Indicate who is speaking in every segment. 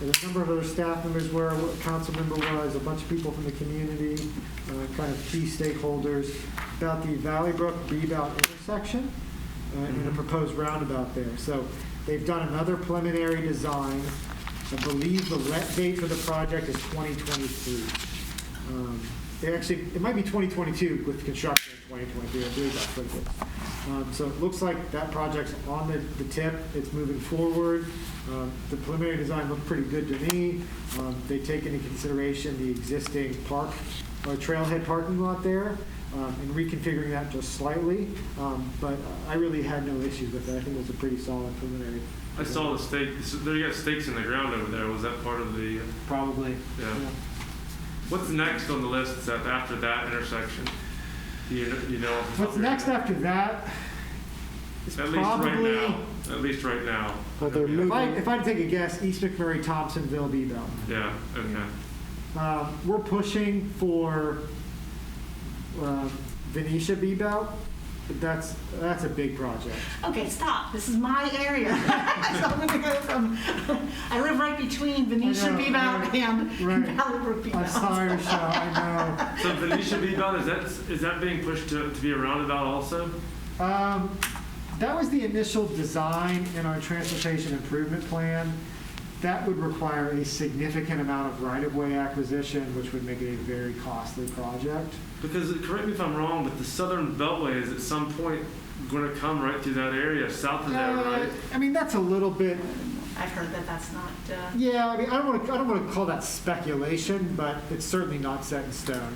Speaker 1: And a number of other staff members were, a council member was, a bunch of people from the community, uh, kind of key stakeholders, about the Valley Brook Beebout intersection uh, and a proposed roundabout there. So they've done another preliminary design. I believe the let date for the project is 2023. Um, They actually, it might be 2022 with construction in 2023, I believe that's what it is. Um, So it looks like that project's on the the tip, it's moving forward. Um, The preliminary design looked pretty good to me. Um, They take into consideration the existing park, or trailhead parking lot there, um, and reconfiguring that just slightly. Um, But I really had no issues with it, I think it was a pretty solid preliminary.
Speaker 2: I saw the stake, so they got stakes in the ground over there, was that part of the, uh,
Speaker 3: Probably.
Speaker 2: yeah.
Speaker 1: Yeah.
Speaker 2: What's next on the list is that after that intersection? You, kn- you know.
Speaker 1: What's next after that is
Speaker 2: At least right
Speaker 1: probably,
Speaker 2: now, at least right now.
Speaker 4: Well, they're
Speaker 2: Yeah.
Speaker 1: if
Speaker 4: moving-
Speaker 1: I, if I had to take a guess, East McMurray, Thompsonville, Bebo.
Speaker 2: Yeah, okay.
Speaker 1: Um, we're pushing for um, Venetia Bebo, but that's, that's a big project.
Speaker 5: Okay, stop. This is my area. so I'm going to go from. I live right between Venetia
Speaker 1: I know,
Speaker 5: Beebout
Speaker 1: right,
Speaker 5: and
Speaker 1: right.
Speaker 5: Valley Brook Beebout.
Speaker 1: I'm sorry, Michelle, I
Speaker 2: So Venetia Beebout, is that, is that being pushed to, to be a roundabout also?
Speaker 1: know. Um, that was the initial design in our transportation improvement plan. That would require a significant amount of right-of-way acquisition, which would make it a very costly project.
Speaker 2: Because, correct me if I'm wrong, but the Southern Beltway is at some point gonna come right through that area, south of that,
Speaker 1: Uh,
Speaker 2: right?
Speaker 1: I mean, that's a little bit,
Speaker 5: I've heard that that's not. Uh,
Speaker 1: yeah, I mean, I don't want to, I don't want to call that speculation, but it's certainly not set in stone.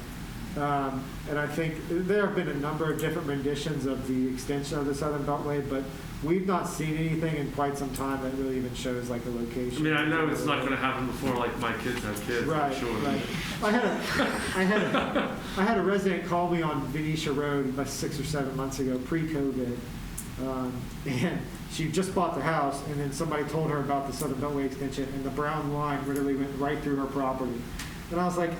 Speaker 1: Um, And I think there have been a number of different renditions of the extension of the Southern Beltway, but we've not seen anything in quite some time that really even shows like a
Speaker 2: I
Speaker 1: location.
Speaker 2: mean, I know it's not gonna happen before like my kids have kids, I'm
Speaker 1: Right,
Speaker 2: sure.
Speaker 1: right. I had a, I had a, I had a resident call me on Venetia Road about six or seven months ago, pre-COVID. Um, and she just bought the house and then somebody told her about the Southern Beltway extension and the brown line literally went right through her property. And I was like,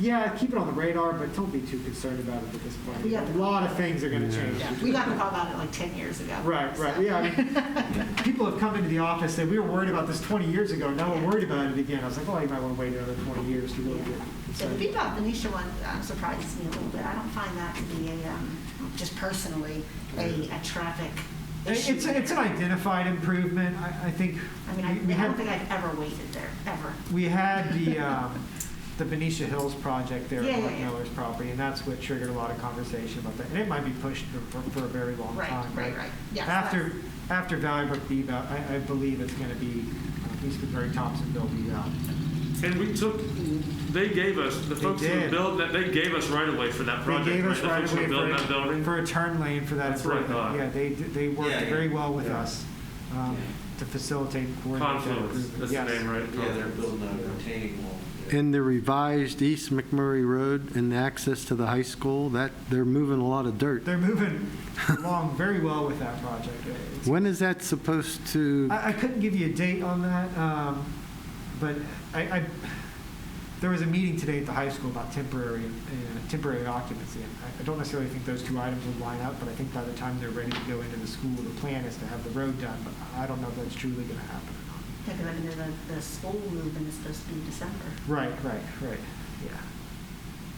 Speaker 1: yeah, keep it on the radar, but don't be too concerned about it at this point.
Speaker 5: We got
Speaker 1: A
Speaker 5: the-
Speaker 1: lot of things are gonna change.
Speaker 5: yeah, we got the call about it like 10 years ago.
Speaker 1: Right,
Speaker 5: So-
Speaker 1: right, yeah. I mean, People have come into the office, and we were worried about this 20 years ago, now we're worried about it again. I was like, well, you might want to wait another 20 years to really get
Speaker 5: So the
Speaker 1: concerned.
Speaker 5: Bebop Venetia one um, surprises me a little bit. I don't find that to be a, um, just personally, a, a traffic issue.
Speaker 1: It's, it's an identified improvement, I, I think.
Speaker 5: I mean, I,
Speaker 1: we- we
Speaker 5: I don't
Speaker 1: had-
Speaker 5: think I've ever waited there, ever.
Speaker 1: We had the, um, the Benicia Hills project there
Speaker 5: Yeah,
Speaker 1: at
Speaker 5: yeah,
Speaker 1: Mark
Speaker 5: yeah.
Speaker 1: Miller's property, and that's what triggered a lot of conversation about that. And it might be pushed for, for a very long
Speaker 5: Right,
Speaker 1: time.
Speaker 5: right, right. Yeah, so
Speaker 1: After, after Valley Brook Beevout, I, I believe it's going to be uh, East Missouri Thompsonville Beevout.
Speaker 2: And we took, they gave us, the
Speaker 1: They
Speaker 2: folks who
Speaker 1: did.
Speaker 2: built that, they gave us right away for that
Speaker 1: They
Speaker 2: project,
Speaker 1: gave
Speaker 2: right?
Speaker 1: us
Speaker 2: The
Speaker 1: right
Speaker 2: folks who
Speaker 1: away
Speaker 2: built that
Speaker 1: for,
Speaker 2: building.
Speaker 1: for a turn lane for that
Speaker 2: That's what I
Speaker 1: improvement.
Speaker 2: thought.
Speaker 1: Yeah, they, they worked
Speaker 6: Yeah, yeah.
Speaker 1: very well with
Speaker 6: Yeah.
Speaker 1: us um, to facilitate and coordinate that
Speaker 2: Confluence,
Speaker 1: improvement.
Speaker 2: that's the
Speaker 1: Yes.
Speaker 2: name, right?
Speaker 6: Yeah, they're building a retaining wall.
Speaker 4: In the revised East McMurray Road and access to the high school, that, they're moving a lot of dirt.
Speaker 1: They're moving along very well with that project. It's-
Speaker 4: When is that supposed to,
Speaker 1: I, I couldn't give you a date on that, um, but I, I, there was a meeting today at the high school about temporary, uh, temporary occupancy. And I, I don't necessarily think those two items would line up, but I think by the time they're ready to go into the school, the plan is to have the road done, but I don't know if that's truly gonna happen or not.
Speaker 5: Yeah, 'cause I mean, the, the school movement is supposed to be in December.
Speaker 1: Right, right, right,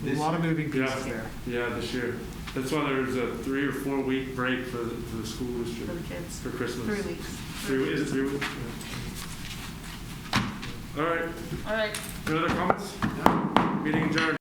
Speaker 1: yeah. A lot of moving pieces
Speaker 2: Yeah.
Speaker 1: there.
Speaker 2: Yeah, this year. That's why there's a three or four week break for the, for the school
Speaker 5: for the
Speaker 2: district
Speaker 5: kids.
Speaker 2: for Christmas.
Speaker 5: Three weeks.
Speaker 2: Three, is it three weeks? Yeah. All right,
Speaker 5: All right.
Speaker 2: any other comments? Meeting adjourned.